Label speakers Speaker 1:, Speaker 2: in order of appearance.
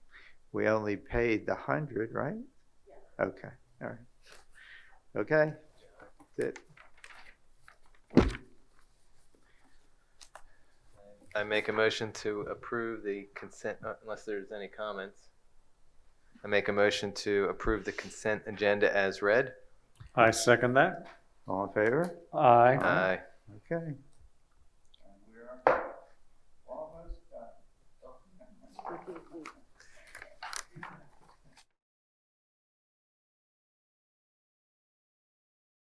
Speaker 1: we only paid the hundred, right? Okay, all right. Okay, that's it.
Speaker 2: I make a motion to approve the consent, uh, unless there's any comments. I make a motion to approve the consent agenda as read.
Speaker 3: I second that.
Speaker 1: All in favor?
Speaker 3: Aye.
Speaker 1: Aye.
Speaker 2: Aye.
Speaker 1: Okay,